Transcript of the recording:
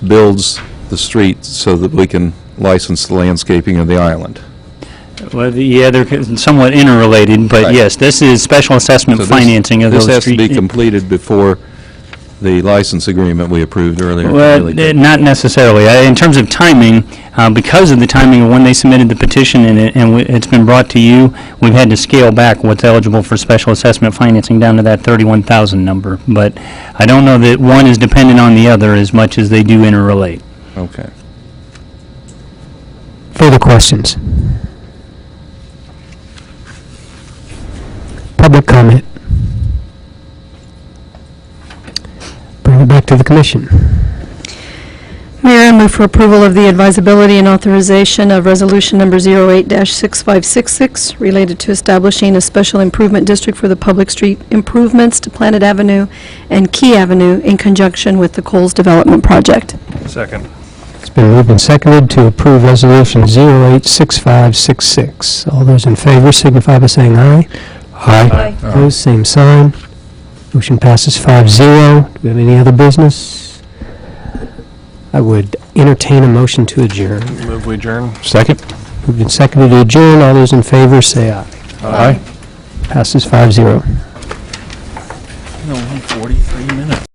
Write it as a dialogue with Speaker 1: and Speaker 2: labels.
Speaker 1: builds the street so that we can license the landscaping of the island.
Speaker 2: Well, the- yeah, they're somewhat interrelated, but
Speaker 1: Right.
Speaker 2: yes, this is special assessment
Speaker 1: So this-
Speaker 2: financing of those
Speaker 1: This has to
Speaker 2: street...
Speaker 1: be completed before the license agreement we approved earlier.
Speaker 2: Well,
Speaker 1: really
Speaker 2: eh,
Speaker 1: did.
Speaker 2: not necessarily. Uh, In terms of timing, uh, because of the timing of when they submitted the petition and it- and w- it's been brought to you, we've had to scale back what's eligible for special assessment financing down to that 31,000 number. But I don't know that one is dependent on the other as much as they do interrelate.
Speaker 1: Okay.
Speaker 3: Further questions? Public comment? Bring it back to the commission.
Speaker 4: Mayor, I move for approval of the advisability and authorization of Resolution Number 08-6566, related to establishing a special improvement district for the public street improvements to Planet Avenue and Key Avenue in conjunction with the Coles Development Project.
Speaker 5: Second.
Speaker 3: It's been moved and seconded to approve Resolution 086566. All those in favor signify by saying aye.
Speaker 5: Aye.
Speaker 3: Opposed, same sign. Motion passes 5-0. Do we have any other business? I would entertain a motion to adjourn.
Speaker 5: Move we adjourn.
Speaker 1: Second?
Speaker 3: Moved and seconded to adjourn. All those in favor, say aye.
Speaker 5: Aye.
Speaker 3: Passes 5-0.